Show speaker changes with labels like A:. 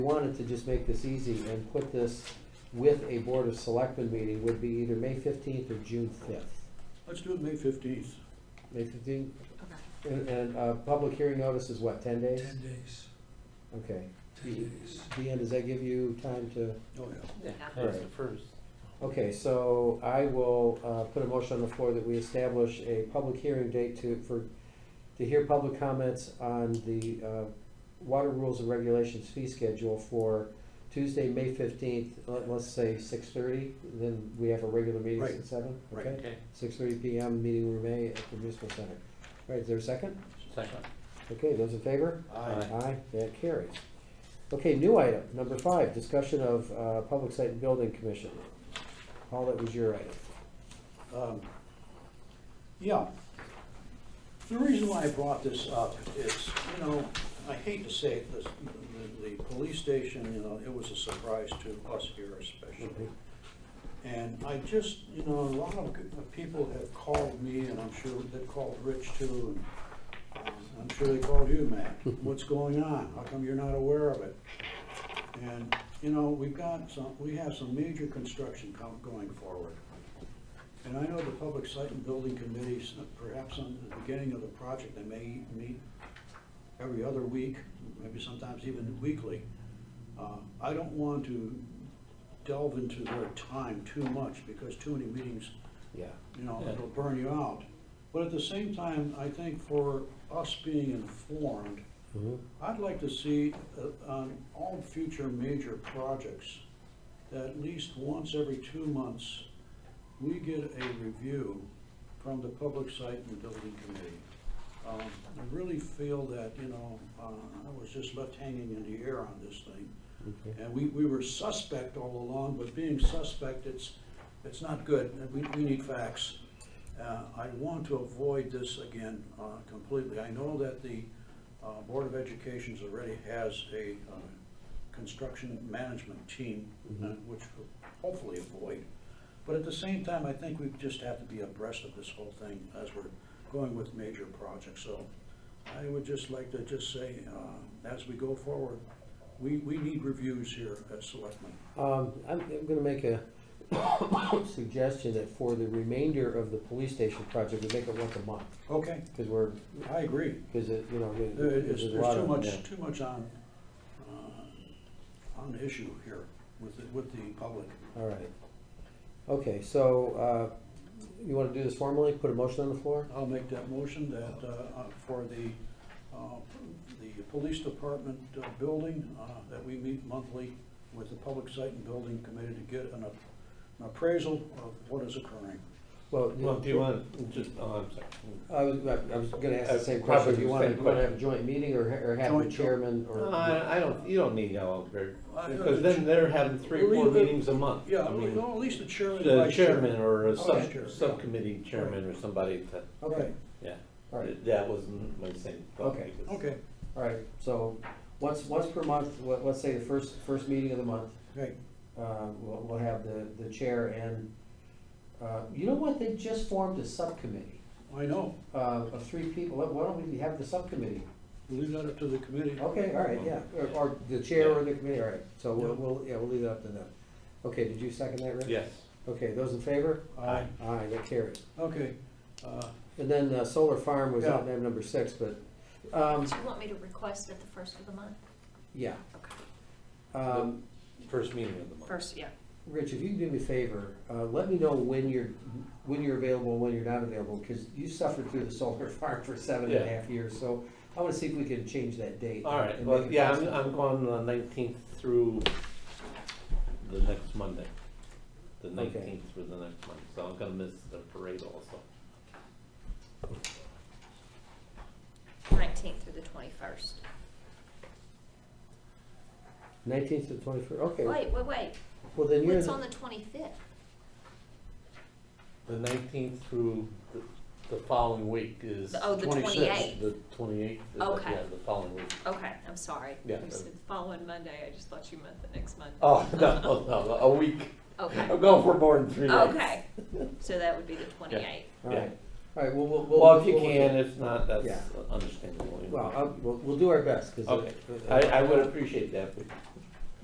A: wanted to just make this easy and put this with a Board of Selectmen meeting would be either May fifteenth or June fifth.
B: Let's do it May fifteenth.
A: May fifteenth,
C: Okay.
A: and, and, uh, public hearing notice is what, ten days?
D: Ten days,
A: Okay.
D: ten days.
A: Deanne, does that give you time to?
B: Oh, yeah.
A: All right. Okay, so I will uh, put a motion on the floor that we establish a public hearing date to, for, to hear public comments on the uh, water rules and regulations fee schedule for Tuesday, May fifteenth, let's say six thirty, then we have a regular meeting
B: Right.
A: at seven,
B: Right.
A: okay? Six thirty PM, meeting room A at the municipal center. All right, is there a second?
E: Second.
A: Okay, those in favor?
B: Aye.
A: Aye, that carries. Okay, new item, number five, discussion of uh, Public Site and Building Commission. Paul, that was your item.
B: Um, Yeah. The reason why I brought this up is, you know, I hate to say it, this, the, the police station, you know, it was a surprise to us here especially. And I just, you know, a lot of good- of people have called me, and I'm sure they've called Rich too, and um, I'm sure they called you, Matt. What's going on? How come you're not aware of it? And, you know, we've got some, we have some major construction com- going forward. And I know the Public Site and Building Committees, uh, perhaps on the beginning of the project, they may meet every other week, maybe sometimes even weekly. Uh, I don't want to delve into their time too much, because too many meetings,
A: Yeah,
B: you know,
E: Yeah.
B: it'll burn you out. But at the same time, I think for us being informed,
A: Mhm.
B: I'd like to see uh, on all future major projects, that at least once every two months, we get a review from the Public Site and Building Committee. Um, I really feel that, you know, uh, I was just left hanging in the air on this thing.
A: okay.
B: And we, we were suspect all along, but being suspect, it's, it's not good, and we, we need facts. Uh, I want to avoid this again uh, completely. I know that the uh, Board of Education's already has a uh, construction management team, uh,
A: Mhm.
B: which we'll hopefully avoid. But at the same time, I think we just have to be abreast of this whole thing as we're going with major projects. So I would just like to just say, uh, as we go forward, we, we need reviews here as selectmen.
A: Um, I'm, I'm gonna make a suggestion that for the remainder of the police station project, we make it once a month,
B: Okay,
A: because we're,
B: I agree.
A: because it, you know.
B: There is,
A: a
B: there's
A: lot
B: too
A: of them, yeah.
B: much, too much on, uh, on the issue here with, the- with the public.
A: All right. Okay, so, uh, you wanna do this formally, put a motion on the floor?
B: I'll make that motion that, uh, uh, for the, uh, the police department uh, building, uh, that we meet monthly with the public site and building committee to get an ap- an appraisal of what is occurring.
E: Well, do you want, just, oh, I'm sorry.
A: I was, I I was gonna ask Uh, the same question, do you wanna, you wanna have a joint meeting or, ha- or have the
B: Joint, sure.
A: chairman or?
E: No, Uh, I, I don't, you don't need all of it,
B: I-
E: because then they're having three,
B: Well,
E: four
B: leave it-
E: meetings a month.
B: Yeah,
E: I
B: at
E: mean,
B: least- at least the chairman.
E: The
B: vice Oh, chairman.
E: chairman or a sub,
B: Vice chair, yeah.
E: subcommittee chairman or somebody to,
B: Okay,
E: yeah.
A: All right,
E: That wasn't my same thought.
A: Okay.
E: because-
B: okay,
A: all right, so, once, once per month, let, let's say the first, first meeting of the month,
B: okay.
A: uh, we'll, we'll have the, the chair and, uh, you know what, they just formed a subcommittee,
B: I know.
A: uh, of three people, Why- why don't we have the subcommittee?
B: Leave that up to the committee.
A: Okay, all right, yeah, or, or the chair or the committee, all right, so we'll,
B: Yeah.
A: we'll, yeah, we'll leave it up to them. Okay, did you second that, Rick?
E: Yes.
A: Okay, those in favor?
B: Aye.
A: Aye, that carries.
B: Okay, uh,
A: And then uh, solar farm was
B: Yeah.
A: item number six, but, um,
C: Do you want me to request at the first of the month?
A: yeah.
C: Okay.
A: Um,
E: First meeting of the month.
C: First, yeah.
A: Rich, if you can do me a favor, uh, let me know when you're, when you're available, and when you're not available, because you suffered through the solar farm for seven and a
E: Yeah.
A: half years, so I want to see if we can change that date.
E: All right,
A: and
E: well,
A: make it
E: yeah, I'm,
A: possible.
E: I'm going the nineteenth through the next Monday. The
A: Okay.
E: nineteenth through the next Monday, so I'm gonna miss the parade also.
C: Nineteenth through the twenty-first.
A: 19th to 21st, okay.
C: Wait, wait, wait.
A: Well, then you're,
C: What's
A: the-
C: on the twenty-fifth?
E: The nineteenth through the, the following week is.
C: Oh, the
B: 26th.
C: twenty-eighth.
E: The twenty-eighth,
C: Okay.
E: yeah, the following week.
C: Okay, I'm sorry.
E: Yeah.
C: You said following Monday. I just thought you meant the next Monday.
E: Oh, no, no, no, a week.
C: Okay,
E: I'm going for more than three days.
C: okay. So that would be the twenty-eighth.
A: all
E: yeah.
A: right, all right, well, we'll. we'll-
E: Well, if you
A: we'll-
E: can, if not,
A: Yeah.
E: that's understandable.
A: Well, I'll- we'll, we'll do our best, because.
E: Okay, I, I would appreciate that, but